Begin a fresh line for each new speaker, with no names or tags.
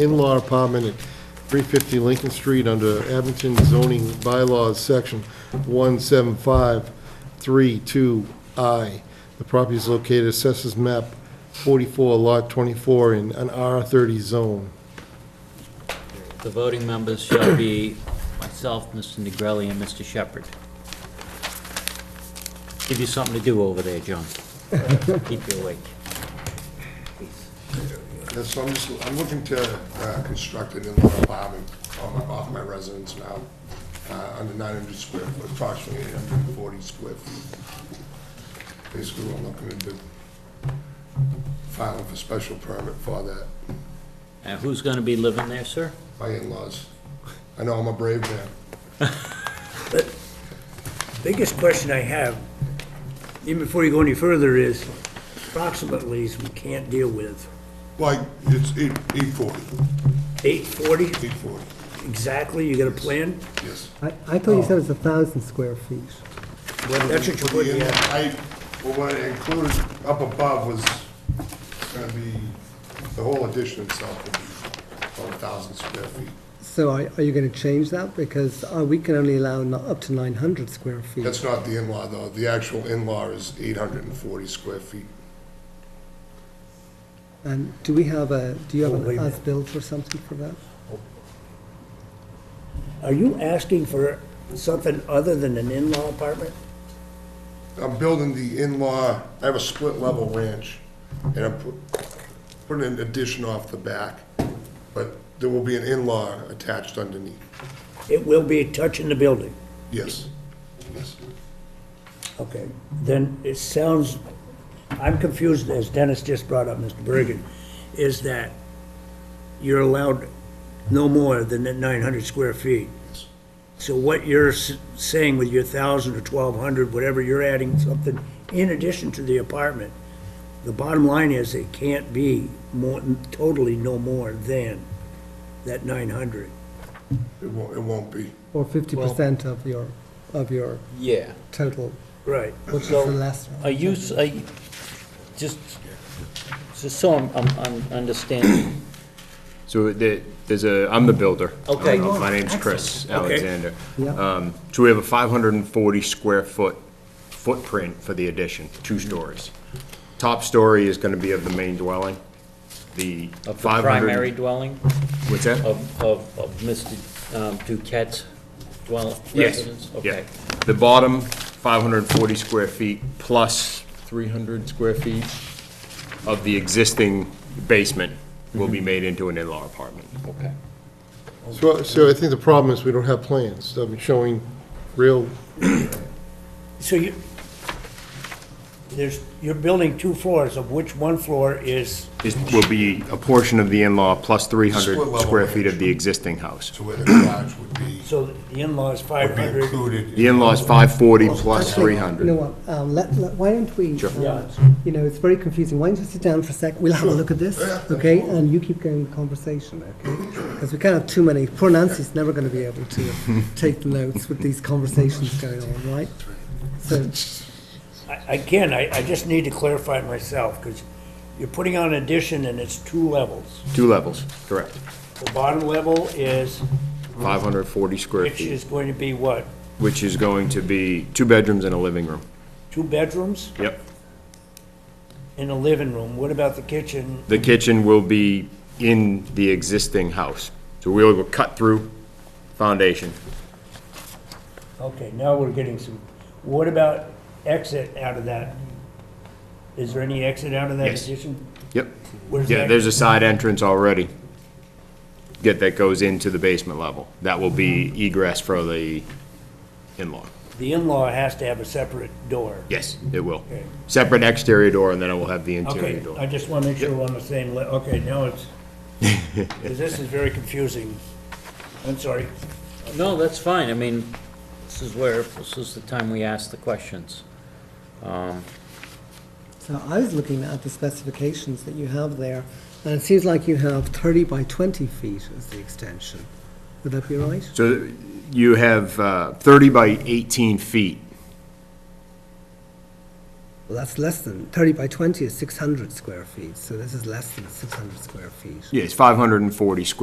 in-law apartment at 350 Lincoln Street under Abington zoning bylaws, section 17532I. The property is located assessors map 44, lot 24, in an R30 zone.
The voting members shall be myself, Mr. Negrelli, and Mr. Shepherd. Give you something to do over there, John. Keep you awake.
Yeah, so I'm just, I'm looking to uh, construct an in-law apartment on my- off my residence now, uh, under 900 square foot, approximately 840 square feet. Basically, what I'm looking to do, filing for special permit for that,
And who's gonna be living there, sir?
my in-laws. I know I'm a brave man.
Biggest question I have, even before you go any further, is approximately we can't deal with.
Like, it's eight- 840,
840
840,
exactly, you got a plan?
yes.
I, I thought you said it was a thousand square feet.
That's what you put in.
I, well, what I included up above was gonna be, the whole addition itself would be about a thousand square feet.
So are, are you gonna change that? Because, uh, we can only allow no- up to nine hundred square feet.
That's not the in-law, though. The actual in-law is eight hundred and forty square feet.
And do we have a, do you have
Oh, wait
an
a minute.
as-built or something for that?
Are you asking for something other than an in-law apartment?
I'm building the in-law, I have a split-level ranch, and I'm pu- putting an addition off the back, but there will be an in-law attached underneath.
It will be touching the building.
Yes, yes.
Okay, then it sounds, I'm confused, as Dennis just brought up, Mr. Bergen, is that you're allowed no more than that 900 square feet. So what you're s- saying with your 1,000 or 1,200, whatever, you're adding something in addition to the apartment. The bottom line is it can't be more, totally no more than that 900.
It won't, it won't be.
Or fifty percent of your, of your
Yeah.
total,
Right.
which is the
So,
less.
Are you, s- are you, just, just so I'm, I'm I'm understanding.
So the- there's a, I'm the builder.
Okay.
Uh, My name's Chris
Okay.
Alexander.
Yeah.
Um, So we have a 540 square foot footprint for the addition, two stories. Top story is going to be of the main dwelling, the
Of the
500
primary dwelling
What's that?
of, of, of Mr. um, Duquette's dwell,
Yes,
residence?
yeah.
Okay.
The bottom, 540 square feet plus 300 square feet of the existing basement will
Mm-hmm.
be made into an in-law apartment.
Okay.
So, so I think the problem is we don't have plans, I mean, showing real,
So you, there's, you're building two floors, of which one floor is
is, will be a portion of the in-law plus
Split
300
level
square feet
range.
of the existing house.
So where the garage would be,
So the in-laws
would be
500.
included.
The in-law is 540 plus
Actually, You
300.
know what, um, let, let, why don't we,
Sure.
uh, you know, it's very confusing, why don't you sit down for a sec, we'll have a look at this, okay? And you keep going the conversation, okay? Because we can't have too many, poor Nancy's never gonna be able to take notes with these conversations going on, right? So,
I- Again, I, I just need to clarify myself, because you're putting on an addition and it's two levels.
Two levels, correct.
The bottom level is,
540 square
which
feet,
is going to be what,
which is going to be two bedrooms and a living room.
two bedrooms
Yep.
and a living room? What about the kitchen?
The kitchen will be in the existing house. So we'll go cut through foundation.
Okay, now we're getting some, what about exit out of that? Is there any exit out of that
Yes.
addition?
Yep.
Where's
Yeah,
that?
there's a side entrance already. Get, that goes into the basement level. That will be egress for the in-law.
The in-law has to have a separate door.
Yes, it will.
Okay.
Separate exterior door, and then it will have the interior
Okay, I
door.
just want to make sure we're on the same, le- okay, now it's, 'cause this is very confusing. I'm sorry.
No, that's fine, I mean, this is where, this is the time we ask the questions.
so I was looking at the specifications that you have there, and it seems like you have thirty by twenty feet as the extension, would that be right?
So you have uh, 30 by 18 feet
Well, that's less than, 30 by 20 is 600 square feet, so this is less than 600 square feet.
Yeah, it's 540 square